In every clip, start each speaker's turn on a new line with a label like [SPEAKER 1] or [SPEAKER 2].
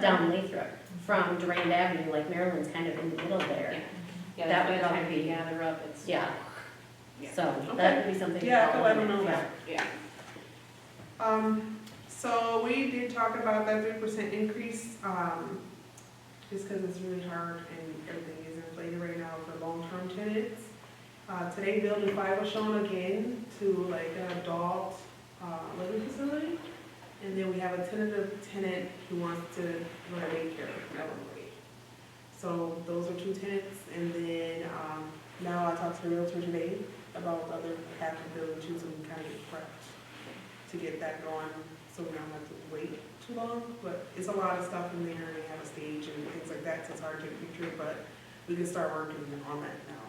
[SPEAKER 1] down Lathrop from Durand Avenue, like Maryland's kind of in the middle there.
[SPEAKER 2] Yeah,
[SPEAKER 1] That
[SPEAKER 2] by
[SPEAKER 1] would
[SPEAKER 2] the
[SPEAKER 1] probably
[SPEAKER 2] time
[SPEAKER 1] be-
[SPEAKER 2] we gather up, it's.
[SPEAKER 1] Yeah,
[SPEAKER 3] Yeah.
[SPEAKER 1] so that
[SPEAKER 3] Okay.
[SPEAKER 1] would be something. to
[SPEAKER 3] Yeah, I can
[SPEAKER 1] follow
[SPEAKER 3] let them
[SPEAKER 1] up.
[SPEAKER 3] know that.
[SPEAKER 2] Yeah,
[SPEAKER 3] Um, so we did talk about that three percent increase, um, just because it's really hard and everything is inflated right now for long-term tenants. Uh, today building five was shown again to like an adult, uh, living facility. And then we have a tentative tenant who wants to run a daycare, that one away. So those are two tenants, and then, um, now I talked to the realtor today about the other half of the building, too, so we kind of get prepped to get that going, so we don't have to wait too long, but it's a lot of stuff in there, and they have a stage and things like that, so it's hard to get a picture, but we can start working on that now.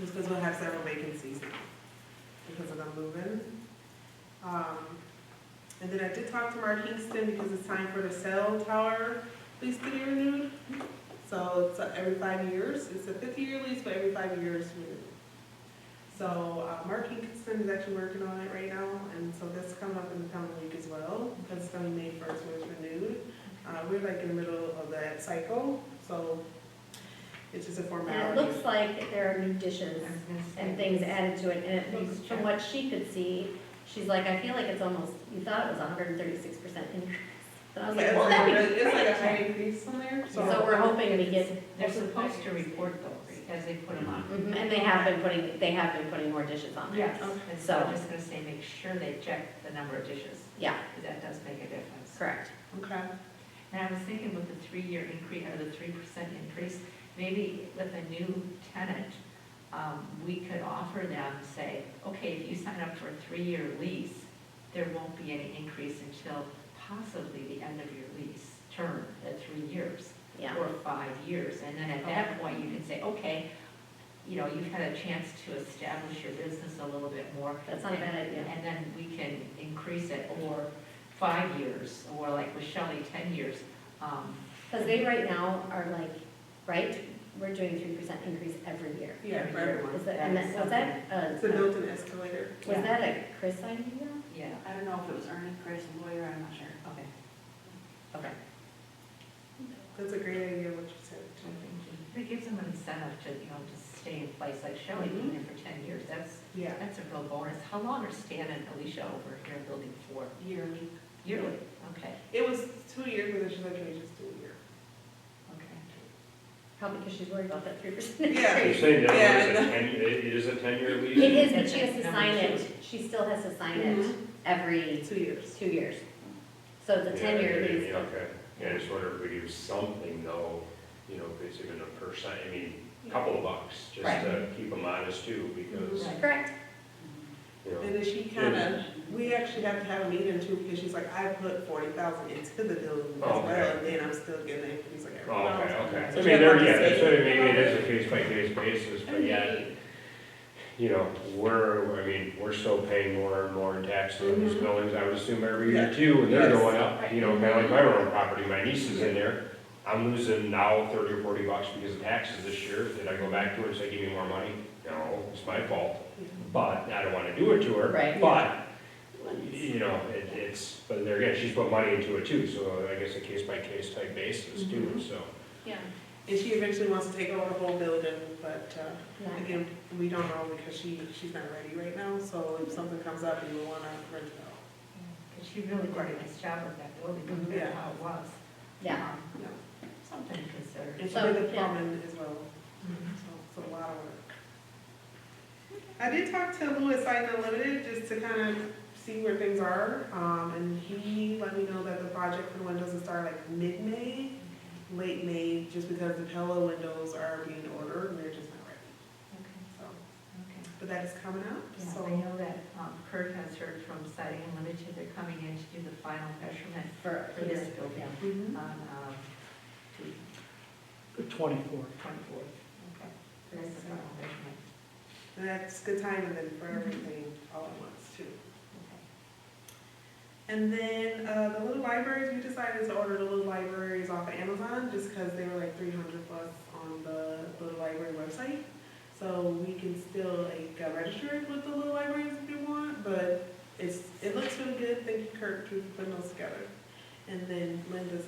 [SPEAKER 3] Just because we'll have several vacancies now, because of the move-in. Um, and then I did talk to Mark Kingston, because it's time for the cell tower lease to be renewed. So it's uh, every five years, it's a fifty-year lease, but every five years renewed. So uh, Mark Hinkinson is actually working on it right now, and so that's coming up in the coming week as well, because it's gonna be May first when it's renewed. Uh, we're like in the middle of that cycle, so it's just a
[SPEAKER 1] And
[SPEAKER 3] formality.
[SPEAKER 1] it looks like there are new dishes and things added to it, and it
[SPEAKER 3] Please
[SPEAKER 1] looks, from
[SPEAKER 3] check.
[SPEAKER 1] what she could see, she's like, I feel like it's almost, you thought it was hundred and thirty-six percent increase. And I was
[SPEAKER 3] Yeah,
[SPEAKER 1] like,
[SPEAKER 3] it's
[SPEAKER 1] well,
[SPEAKER 3] like
[SPEAKER 1] that'd
[SPEAKER 3] a-
[SPEAKER 1] be
[SPEAKER 3] It's like a
[SPEAKER 1] great.
[SPEAKER 3] high increase on there, so.
[SPEAKER 1] So we're hoping we get,
[SPEAKER 4] They're supposed to report those as they put them on.
[SPEAKER 1] mhm, and they have been putting, they have been putting more dishes on there.
[SPEAKER 4] And so I'm just gonna say, make sure they check the number of dishes,
[SPEAKER 1] Yeah,
[SPEAKER 4] because that does make a difference.
[SPEAKER 1] correct.
[SPEAKER 3] Okay.
[SPEAKER 4] And I was thinking with the three-year increase, or the three percent increase, maybe with a new tenant, um, we could offer them, say, okay, if you sign up for a three-year lease, there won't be any increase until possibly the end of your lease term, at three years.
[SPEAKER 1] Yeah,
[SPEAKER 4] or five years, and then at that point, you can say, okay, you know, you've had a chance to establish your business a little bit more.
[SPEAKER 1] that's not a bad idea.
[SPEAKER 4] And then we can increase it, or five years, or like with Shelley, ten years. Um,
[SPEAKER 1] Because they right now are like, right, we're doing three percent increase every year.
[SPEAKER 3] Yeah, for everyone.
[SPEAKER 1] Is that, and that, was that,
[SPEAKER 3] It's a
[SPEAKER 1] uh,
[SPEAKER 3] built-in escalator.
[SPEAKER 1] was that a Chris idea?
[SPEAKER 4] Yeah,
[SPEAKER 2] I don't know if it was Ernie, Chris, lawyer, I'm not sure.
[SPEAKER 4] okay.
[SPEAKER 1] Okay.
[SPEAKER 3] That's a great idea, what you said. too.
[SPEAKER 4] It gives them an incentive to, you know, to stay in place, like Shelley,
[SPEAKER 1] Mm-hmm.
[SPEAKER 4] being there for ten years, that's,
[SPEAKER 3] Yeah.
[SPEAKER 4] that's a real bonus. How long are Stan and Alicia over here in building four?
[SPEAKER 2] Yearly.
[SPEAKER 4] Yearly, okay,
[SPEAKER 3] It was two years, but then she's like, can we just do a year?
[SPEAKER 4] okay.
[SPEAKER 1] Probably because she's worried about that three percent
[SPEAKER 3] Yeah.
[SPEAKER 1] increase.
[SPEAKER 5] You're saying that
[SPEAKER 3] Yeah,
[SPEAKER 5] was
[SPEAKER 3] I
[SPEAKER 5] a ten, it is a ten-year lease?
[SPEAKER 1] It is, but she has to sign it, she still has to sign it every
[SPEAKER 3] Two years.
[SPEAKER 1] two years. So it's a
[SPEAKER 5] Yeah,
[SPEAKER 1] ten-year
[SPEAKER 5] yeah,
[SPEAKER 1] lease.
[SPEAKER 5] yeah, Okay, yeah, I just wonder if we do something though, you know, if it's even a percent, I mean, a couple of bucks, just
[SPEAKER 1] Right.
[SPEAKER 5] to keep them honest too, because,
[SPEAKER 4] Right.
[SPEAKER 1] Correct,
[SPEAKER 5] you know.
[SPEAKER 3] And then she kind of, we actually have to have a meeting too, because she's like, I put forty thousand into the building as well,
[SPEAKER 5] Oh, okay.
[SPEAKER 3] and then I'm still getting it. He's like,
[SPEAKER 5] Oh,
[SPEAKER 3] everyone
[SPEAKER 5] okay,
[SPEAKER 3] else.
[SPEAKER 5] okay. I
[SPEAKER 3] So
[SPEAKER 5] mean,
[SPEAKER 3] she had
[SPEAKER 5] there,
[SPEAKER 3] to
[SPEAKER 5] yeah,
[SPEAKER 3] say-
[SPEAKER 5] that's what I mean, it is a case-by-case basis, but yeah, you know, we're, I mean, we're still paying more and more in taxes on these
[SPEAKER 3] Mhm.
[SPEAKER 5] buildings, I would assume every year
[SPEAKER 3] Yeah.
[SPEAKER 5] too, and they're
[SPEAKER 3] Yes.
[SPEAKER 5] going up, you know, kinda like my own property, my niece is in there. I'm losing now thirty or forty bucks because of taxes this year, did I go back to her and say, give me more money? No, it's my fault, but I don't wanna do it to her.
[SPEAKER 1] Right.
[SPEAKER 5] But, you know, it, it's, but there again, she's put money into it too, so I guess a case-by-case type basis
[SPEAKER 3] Mm-hmm.
[SPEAKER 5] too, so.
[SPEAKER 2] Yeah.
[SPEAKER 3] And she eventually wants to take over the whole building, but, uh,
[SPEAKER 1] Yeah.
[SPEAKER 3] again, we don't know because she, she's not ready right now, so if something comes up, you will wanna rent it out.
[SPEAKER 4] Because she really did a nice job with that building, compared
[SPEAKER 3] Yeah.
[SPEAKER 4] to how it was.
[SPEAKER 1] yeah.
[SPEAKER 4] Um,
[SPEAKER 3] Yeah.
[SPEAKER 4] Something to consider.
[SPEAKER 3] And she
[SPEAKER 1] So,
[SPEAKER 3] did the
[SPEAKER 1] yeah.
[SPEAKER 3] plumbing as well. So it's a lot of work. I did talk to Lou at Site Unlimited just to kind of see where things are, um, and he let me know that the project for the windows will start like mid-May, late May, just because the Pella windows are being ordered and they're just not ready,
[SPEAKER 4] Okay,
[SPEAKER 3] so.
[SPEAKER 4] okay.
[SPEAKER 3] But that is coming up,
[SPEAKER 4] Yeah, I
[SPEAKER 3] so.
[SPEAKER 4] know that um, Kurt has heard from Siding Unlimited, they're coming in to do the final measurement
[SPEAKER 1] For,
[SPEAKER 4] for this building
[SPEAKER 3] Mhm.
[SPEAKER 4] on, um, the
[SPEAKER 6] Twenty-four.
[SPEAKER 4] twenty-fourth. Okay. So That's the final measurement.
[SPEAKER 3] And that's good timing then for everything all at once too.
[SPEAKER 4] Okay.
[SPEAKER 3] And then, uh, the little libraries, we decided to order the little libraries off of Amazon, just because they were like three hundred plus on the little library website. So we can still like uh, register it with the little libraries if you want, but it's, it looks really good, thank you Kurt for putting those together. And then Linda's